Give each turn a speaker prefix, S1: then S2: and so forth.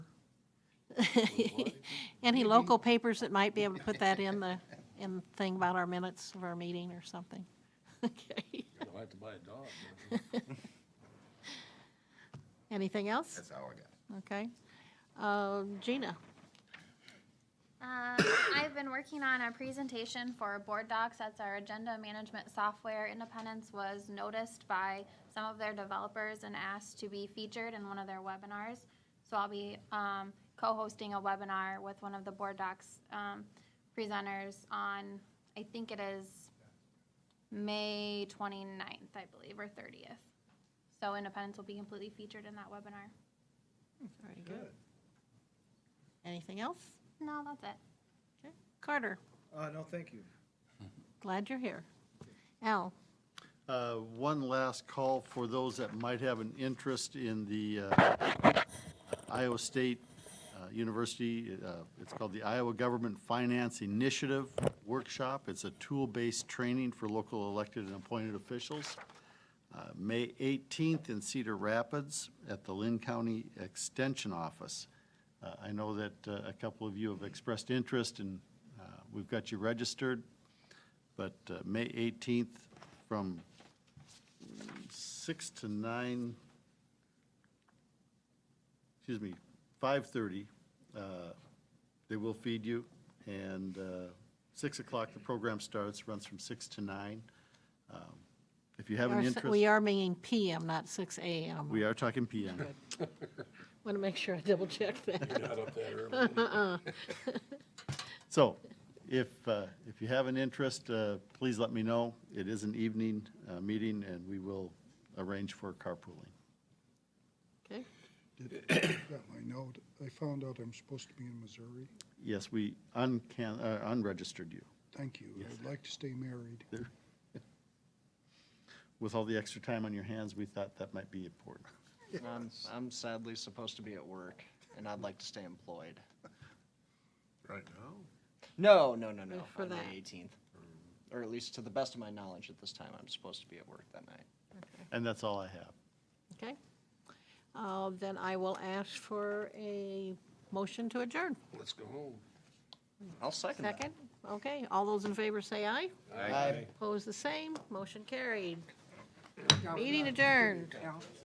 S1: Any local papers that might be able to put that in the, in the thing about our minutes of our meeting or something? Okay.
S2: You'll have to buy a dog.
S1: Anything else?
S3: That's all I got.
S1: Okay. Uh, Gina?
S4: Um, I've been working on a presentation for Board Docs. That's our agenda management software. Independence was noticed by some of their developers and asked to be featured in one of their webinars. So I'll be um, co-hosting a webinar with one of the Board Docs um, presenters on, I think it is May 29th, I believe, or 30th. So Independence will be completely featured in that webinar.
S1: Very good. Anything else?
S4: No, that's it.
S1: Okay. Carter,
S5: Uh, no, thank you.
S1: glad you're here. Al?
S6: Uh, One last call for those that might have an interest in the uh, Iowa State uh, University. uh, It's called the Iowa Government Finance Initiative Workshop. It's a tool-based training for local elected and appointed officials. Uh, May 18th in Cedar Rapids at the Lynn County Extension Office. Uh, I know that uh, a couple of you have expressed interest, and uh, we've got you registered. But uh, May 18th from 6 to 9, excuse me, 5:30, uh, they will feed you. And uh, 6 o'clock, the program starts, runs from 6 to 9. Um, If you have an
S1: Our s-
S6: interest.
S1: We are meeting PM, not six AM.
S6: We are talking PM.
S1: Want to make sure I double check that.
S2: You're not up that early.
S6: So if, uh, if you have an interest, uh, please let me know. It is an evening uh, meeting, and we will arrange for carpooling.
S1: Okay.
S7: got my note. I found out I'm supposed to be in Missouri.
S6: Yes, we uncan, uh, unregistered you
S7: Thank you. I'd like to stay married.
S6: with all the extra time on your hands, we thought that might be important.
S8: And I'm, I'm sadly supposed to be at work, and I'd like to stay employed.
S2: Right now?
S8: No, no, no, no.
S1: For
S8: on
S1: that.
S8: the 18th, or at least to the best of my knowledge at this time, I'm supposed to be at work that night.
S6: And that's all I have.
S1: Okay. Uh, Then I will ask for a motion to adjourn.
S2: Let's go home.
S8: I'll second that.
S1: Second? Okay, all those in favor say aye.
S8: Aye.
S1: Opposed, the same. Motion carried. Meeting adjourned.